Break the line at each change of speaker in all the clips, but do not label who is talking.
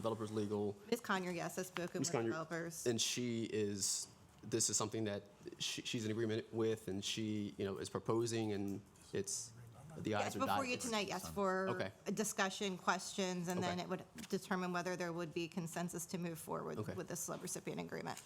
Developers Legal,
Ms. Conyer, yes, I've spoken
Ms.
with
Conyer.
developers.
and she is, this is something that she, she's in agreement with, and she, you know, is proposing, and it's, the
Yes,
eyes are dotted.
before you tonight, yes, for
Okay.
a discussion, questions, and then
Okay.
it would determine whether there would be consensus to move forward
Okay.
with the subrecipient agreement.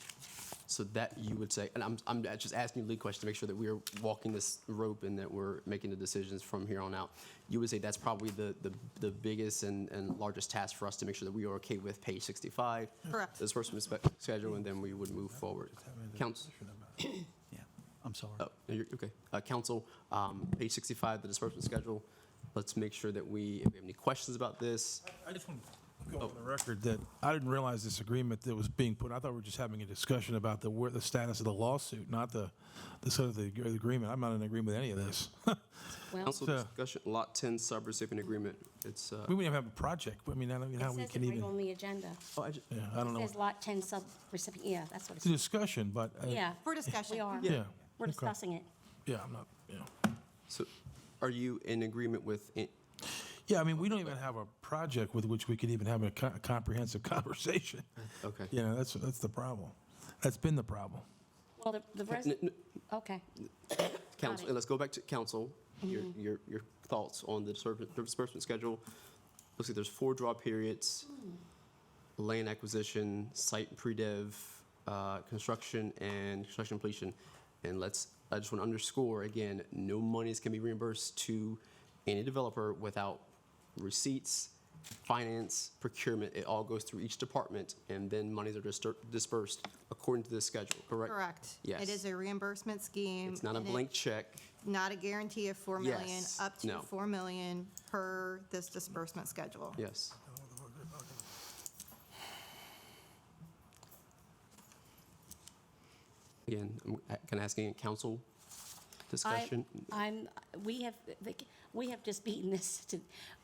So that you would say, and I'm, I'm just asking you lead questions to make sure that we are walking this rope and that we're making the decisions from here on out. You would say that's probably the, the, the biggest and, and largest task for us to make sure that we are okay with page 65.
Correct.
This first spe- schedule, and then we would move forward. Council,
Yeah, I'm sorry.
oh, no, you're, okay. Uh, council, um, page 65, the disbursement schedule. Let's make sure that we, if we have any questions about this,
I just want to go on the record that I didn't realize this agreement that was being put, I thought we were just having a discussion about the, where- the status of the lawsuit, not the, the sort of the ag- agreement. I'm not in agreement with any of this.
council
Sir.
discussion, lot 10 subrecipient agreement. It's, uh,
We wouldn't even have a project. I mean, I don't know how
It
we
says
can
it right
even,
on the agenda.
oh, I ju-
yeah, I don't
It
know.
says
It's
lot 10 sub-recipient, yeah, that's what it
a
says.
discussion, but. uh,
Yeah.
For discussion.
We are.
Yeah.
We're
Okay.
discussing it.
Yeah, I'm not, yeah.
so are you in agreement with, it?
Yeah, I mean, we don't even have a project with which we could even have a co- comprehensive conversation.
okay.
You know, that's, that's the problem. That's been the problem.
Well, the, the, res-
N- n-
okay.
Council,
it.
and let's go back to council, your, your, your thoughts on the disperse- disbursement schedule. Looks like there's four draw periods, land acquisition, site pre-dev, uh, construction and construction completion. And let's, I just want to underscore again, no monies can be reimbursed to any developer without receipts, finance, procurement. It all goes through each department and then monies are distur- dispersed according to this schedule, correct?
Correct.
Yes.
It is a reimbursement scheme.
It's not a
and it-
blank check.
Not a guarantee of 4 million,
Yes.
up to
No.
4 million per this disbursement schedule.
Yes. Again, I'm- I- can I ask any council
I,
discussion?
I'm, we have, we have just beaten this to,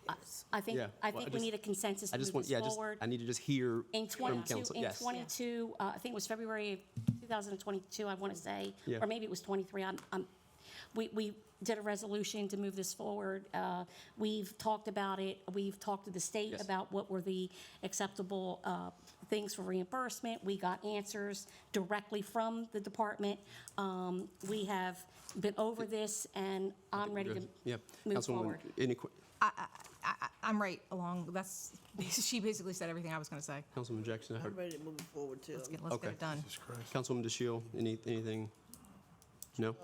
I- I think,
Yeah,
I
well, I
think we
just-
need a consensus
I
to
just
move
want, yeah, I
this
just,
forward.
I need to just hear
In
from
22,
council.
in
Yes,
22, uh, I think it was February of 2022, I want to say,
Yeah.
or maybe it was 23. I'm- I'm- We we did a resolution to move this forward. Uh, We've talked about it. We've talked to the state
Yes.
about what were the acceptable uh, things for reimbursement. We got answers directly from the department. Um, We have been over this, and I'm ready to
Good. Yeah.
move
Councilwoman,
forward.
Any, que-
I, I, I'm right along, that's, she basically said everything I was gonna say.
Councilman Jackson, I
I'm
heard,
ready to move forward too.
Let's get, let's
Okay.
get it done.
Councilwoman DeShiel, any, anything? No?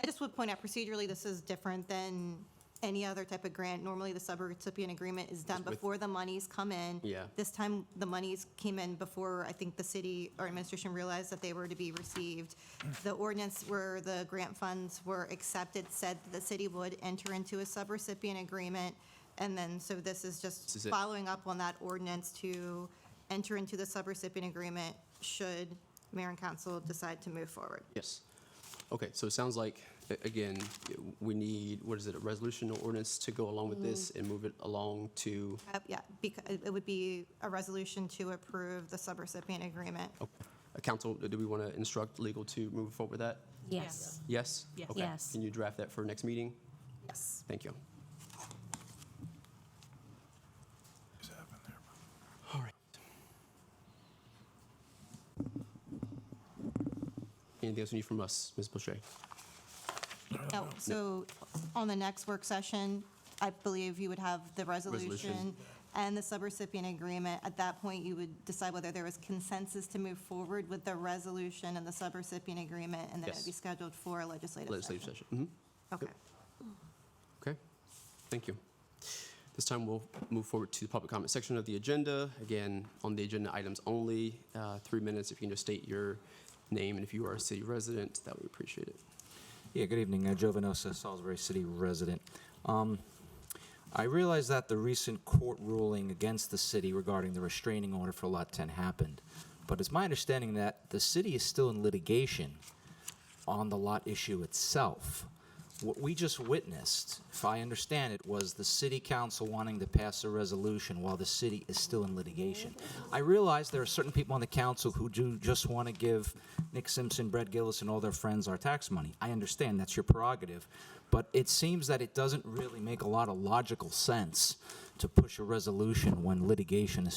I just would point out procedurally, this is different than any other type of grant. Normally, the subrecipient agreement is done
With-
before the monies come in.
Yeah.
This time, the monies came in before, I think, the city or administration realized that they were to be received. The ordinance where the grant funds were accepted said that the city would enter into a subrecipient agreement. And then, so this is
This
just
is it.
following up on that ordinance to enter into the subrecipient agreement should mayor and council decide to move forward.
Yes. Okay, so it sounds like, a- again, we need, what is it, a resolution or ordinance to go along with this
Mm-hmm.
and move it along to
Uh, Yeah, because it would be a resolution to approve the subrecipient agreement.
Uh, Council, do we want to instruct legal to move forward with that?
Yes.
Yes?
Yes.
Okay.
Yes.
Can you draft that for next meeting?
Yes.
Thank you.
What's happened there?
All right. Anything else you need from us, Ms. Boucher?
Oh, So on the next work session, I believe you would have the resolution
Resolution.
and the subrecipient agreement. At that point, you would decide whether there was consensus to move forward with the resolution and the subrecipient agreement, and then
Yes.
it would be scheduled for a legislative
Legislative
session.
session. Mhm.
Okay.
Okay, thank you. This time, we'll move forward to the public comment section of the agenda. Again, on the agenda items only, uh, three minutes. If you can just state your name and if you are a city resident, that would appreciate it.
Yeah, good evening. Uh, Jovanosa, Salisbury City resident. Um, I realize that the recent court ruling against the city regarding the restraining order for Lot 10 happened, but it's my understanding that the city is still in litigation on the lot issue itself. What we just witnessed, if I understand it, was the city council wanting to pass a resolution while the city is still in litigation. I realize there are certain people on the council who do just want to give Nick Simpson, Brett Gillis, and all their friends our tax money. I understand that's your prerogative, but it seems that it doesn't really make a lot of logical sense to push a resolution when litigation is